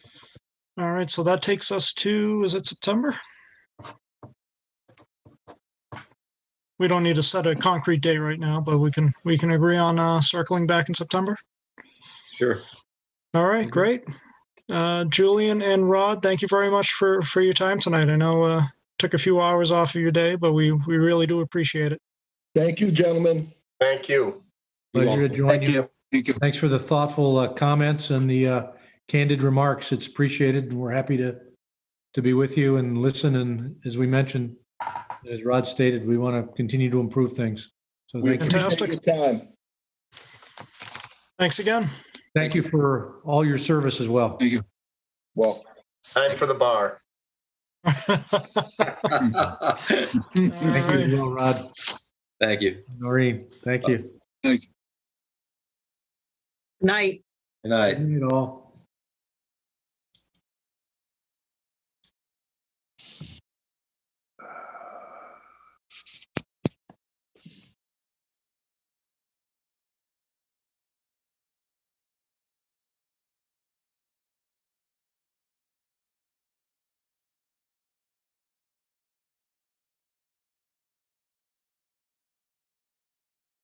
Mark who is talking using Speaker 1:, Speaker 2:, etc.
Speaker 1: All right, so that takes us to, is it September? We don't need to set a concrete date right now, but we can, we can agree on uh, circling back in September.
Speaker 2: Sure.
Speaker 1: All right,
Speaker 2: Mhm.
Speaker 1: great. Uh, Julian and Rod, thank you very much for, for your time tonight. I know uh, took a few hours off of your day, but we, we really do appreciate it.
Speaker 3: Thank you, gentlemen.
Speaker 2: Thank you. You're
Speaker 4: Pleasure to
Speaker 2: welcome.
Speaker 4: join you.
Speaker 5: Thank you.
Speaker 4: Thanks for the thoughtful uh, comments and the uh, candid remarks. It's appreciated. and We're happy to, to be with you and listen. And as we mentioned, as Rod stated, we want to continue to improve things. So
Speaker 3: We
Speaker 4: thank you.
Speaker 3: appreciate your
Speaker 1: Fantastic.
Speaker 3: time.
Speaker 1: Thanks again.
Speaker 4: Thank you for all your service as well.
Speaker 5: Thank you.
Speaker 3: Well,
Speaker 2: Time for the bar.
Speaker 4: Thank you as well, Rod,
Speaker 6: Thank you.
Speaker 4: Noreen. Thank you.
Speaker 6: Good night.
Speaker 4: Good night all.